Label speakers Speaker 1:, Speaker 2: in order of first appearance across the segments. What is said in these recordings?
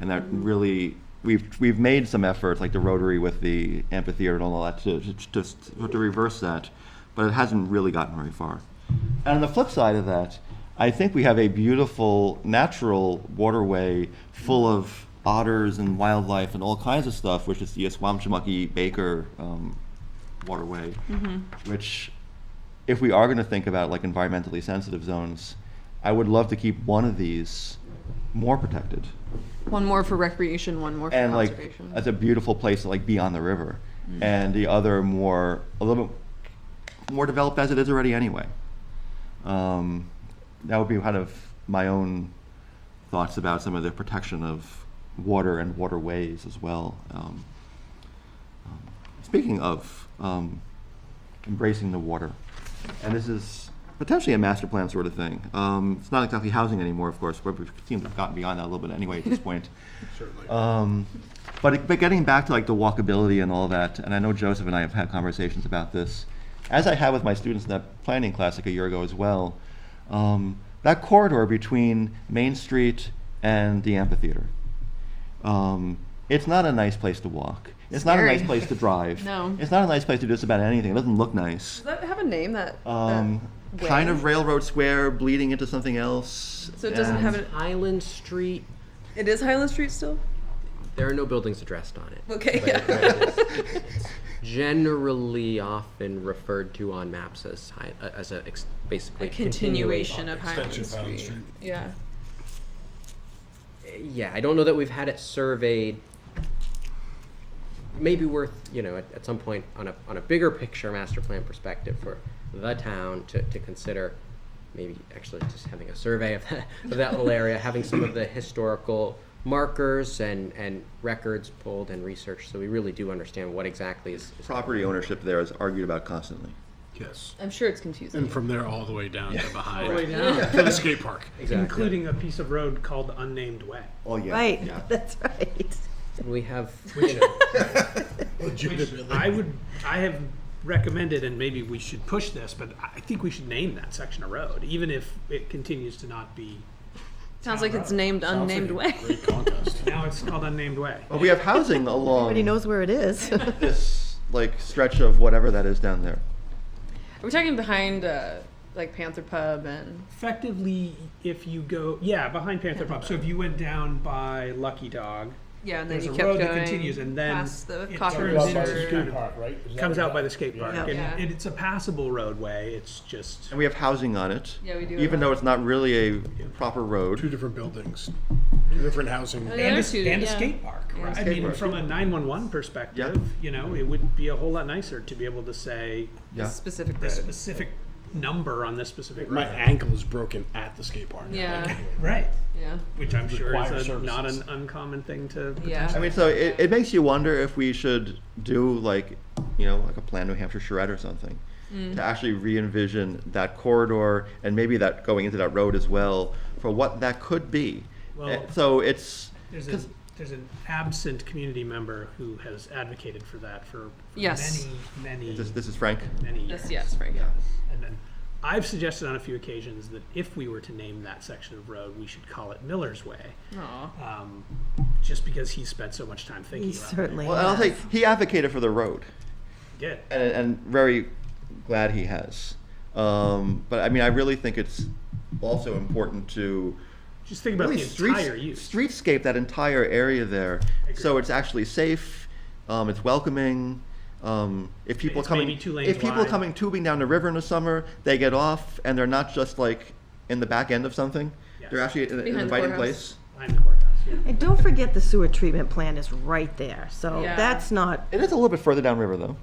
Speaker 1: and that really we've we've made some efforts like the Rotary with the amphitheater and all that to to, to, to reverse that, but it hasn't really gotten very far. And on the flip side of that, I think we have a beautiful natural waterway full of otters and wildlife and all kinds of stuff, which is the Esquamchamucky Baker um, waterway, which if we are going to think about like environmentally sensitive zones, I would love to keep one of these more protected
Speaker 2: One more for recreation, one more for
Speaker 1: and like
Speaker 2: conservation.
Speaker 1: that's a beautiful place to like be on the river and the other more a little bit more developed as it is already anyway um, that would be kind of my own thoughts about some of the protection of water and waterways as well um, um, speaking of um, embracing the water and this is potentially a master plan sort of thing um, it's not exactly housing anymore of course but we seem to have gotten beyond that a little bit anyway at this point
Speaker 3: certainly.
Speaker 1: um, but, it- but getting back to like the walkability and all that, and I know Joseph and I have had conversations about this, as I had with my students in that planning class like a year ago as well, um, that corridor between Main Street and the amphitheater. Um, it's not a nice place to walk. It's not a
Speaker 2: Scary.
Speaker 1: nice place to drive.
Speaker 2: No.
Speaker 1: It's not a nice place to do just about anything. It doesn't look nice.
Speaker 2: Does that have a name that? that
Speaker 1: Um,
Speaker 2: way?
Speaker 1: kind of Railroad Square bleeding into something else.
Speaker 2: So it doesn't
Speaker 1: and-
Speaker 2: have an.
Speaker 4: Island Street.
Speaker 2: It is Highland Street still.
Speaker 4: There are no buildings addressed on it.
Speaker 2: Okay,
Speaker 4: but
Speaker 2: yeah.
Speaker 4: it- it's- it's Generally, often referred to on maps as hi- uh, as a ex- basically
Speaker 2: A continuation of Highland
Speaker 3: Extension of Highland
Speaker 2: Street. Yeah.
Speaker 4: continuation. Eh, Yeah, I don't know that we've had it surveyed. Maybe worth you know at, at some point on a on a bigger picture master plan perspective for the town to, to consider. Maybe actually just having a survey of that, of that little area, having some of the historical markers and, and records pulled and researched, so we really do understand what exactly is, is
Speaker 1: Property ownership there is argued about constantly.
Speaker 3: Yes.
Speaker 2: I'm sure it's confusing.
Speaker 3: And from there all the way down to behind
Speaker 5: Way down.
Speaker 3: to the skate park.
Speaker 5: Including a piece of road called the Unnamed Way.
Speaker 1: Oh, yeah.
Speaker 6: Right,
Speaker 1: Yeah.
Speaker 6: that's right.
Speaker 4: We have, you know,
Speaker 5: I would, I have recommended, and maybe we should push this, but I think we should name that section of road, even if it continues to not be.
Speaker 2: Sounds like it's named unnamed way.
Speaker 5: Now it's called Unnamed Way.
Speaker 1: But we have housing along.
Speaker 6: Everybody knows where it is.
Speaker 1: this like stretch of whatever that is down there.
Speaker 2: Are we talking behind uh, like Panther Pub and?
Speaker 5: Effectively, if you go, yeah, behind Panther Pub. So if you went down by Lucky Dog,
Speaker 2: Yeah, and then
Speaker 5: there's
Speaker 2: you
Speaker 5: a
Speaker 2: kept
Speaker 5: road
Speaker 2: going
Speaker 5: that continues, and then
Speaker 2: past the
Speaker 5: it
Speaker 2: coffee
Speaker 5: turns into,
Speaker 2: roaster.
Speaker 5: kind of- comes out by the skate park.
Speaker 6: Yeah.
Speaker 5: And
Speaker 2: Yeah.
Speaker 5: and it's a passable roadway, it's just.
Speaker 1: And we have housing on it.
Speaker 2: Yeah, we do have
Speaker 1: Even though it's not really a proper road.
Speaker 3: Two different buildings, two different housing.
Speaker 2: Oh, the
Speaker 5: and
Speaker 2: other
Speaker 5: a,
Speaker 2: two,
Speaker 5: and a
Speaker 2: yeah.
Speaker 5: skate park.
Speaker 2: Yeah.
Speaker 5: Right? I
Speaker 1: Skate
Speaker 5: mean,
Speaker 1: park.
Speaker 5: from a 911 perspective, you know, it would be a whole lot nicer to be able to say
Speaker 1: Yeah.
Speaker 2: Specific
Speaker 5: the
Speaker 2: road.
Speaker 5: specific number on this specific
Speaker 3: My
Speaker 5: road.
Speaker 3: ankle is broken at the skate park.
Speaker 2: Yeah,
Speaker 5: Right.
Speaker 2: yeah,
Speaker 5: Which I'm sure
Speaker 3: Require
Speaker 5: is a, not
Speaker 3: services.
Speaker 5: an uncommon thing to.
Speaker 1: I
Speaker 2: yeah.
Speaker 1: mean, so it, it makes you wonder if we should do like, you know, like a Plan New Hampshire charrette or something. To actually re envision that corridor and maybe that going into that road as well for what that could be.
Speaker 5: Well-
Speaker 1: Eh, so it's,
Speaker 5: There's, a, there's an absent community member who has advocated for that for, for
Speaker 2: Yes.
Speaker 5: many, many,
Speaker 1: this, this is Frank.
Speaker 5: many years.
Speaker 2: Yes, yes, Frank.
Speaker 5: And then I've suggested on a few occasions that if we were to name that section of road, we should call it Miller's Way,
Speaker 2: Aw.
Speaker 5: um, just because he spent so much time thinking
Speaker 6: He
Speaker 5: about it.
Speaker 6: certainly
Speaker 1: Well, I'll
Speaker 6: has.
Speaker 1: say he advocated for the road.
Speaker 5: He did.
Speaker 1: and, and very glad he has. Um, but I mean, I really think it's also important to
Speaker 5: Just think about
Speaker 1: really
Speaker 5: the
Speaker 1: streets-
Speaker 5: entire use.
Speaker 1: streetscape that entire area there, so it's actually safe, um, it's welcoming. Um, if people
Speaker 5: It's
Speaker 1: coming,
Speaker 5: maybe two lanes
Speaker 1: if people
Speaker 5: wide.
Speaker 1: coming tubing down the river in the summer, they get off and they're not just like in the back end of something. They're
Speaker 5: Yes.
Speaker 1: actually in, in an
Speaker 2: Behind the
Speaker 1: inviting
Speaker 2: courthouse.
Speaker 1: place.
Speaker 5: Behind the courthouse, yeah.
Speaker 6: And don't forget the sewer treatment plant is right there, so
Speaker 2: Yeah.
Speaker 6: that's not,
Speaker 1: It is a little bit further downriver though.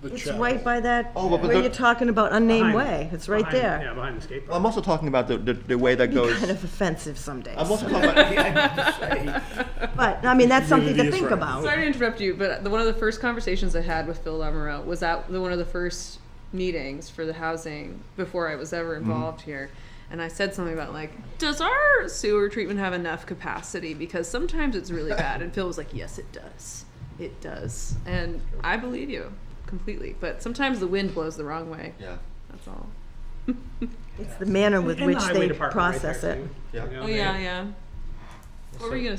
Speaker 3: The
Speaker 6: it's
Speaker 3: chat-
Speaker 6: right by that,
Speaker 1: Oh, but- but
Speaker 6: where
Speaker 1: the-
Speaker 6: you're talking about unnamed
Speaker 5: Behind-
Speaker 6: way, it's right
Speaker 5: behind- Yeah,
Speaker 6: there.
Speaker 5: behind the skate
Speaker 1: I'm
Speaker 5: park.
Speaker 1: also talking about the, the, the way that goes.
Speaker 6: Kind of offensive some days,
Speaker 1: I'm also talking about.
Speaker 6: but, I mean, that's something
Speaker 3: Unity
Speaker 6: to
Speaker 3: is
Speaker 6: think
Speaker 3: right.
Speaker 6: about.
Speaker 2: Sorry to interrupt you, but the, one of the first conversations I had with Phil Lamoureux was at the, one of the first meetings for the housing before I was ever involved here. And I said something about like, does our sewer treatment have enough capacity? Because sometimes it's really bad. And Phil was like, yes, it does. It does. And I believe you completely. But sometimes the wind blows the wrong way.
Speaker 1: Yeah.
Speaker 2: That's all.
Speaker 6: It's the manner with
Speaker 5: And the
Speaker 6: which
Speaker 5: highway
Speaker 6: they
Speaker 5: department right
Speaker 6: process
Speaker 5: there,
Speaker 6: it.
Speaker 5: too.
Speaker 1: Yeah.
Speaker 5: You know,
Speaker 2: Oh
Speaker 5: they-
Speaker 2: yeah, yeah. What were you gonna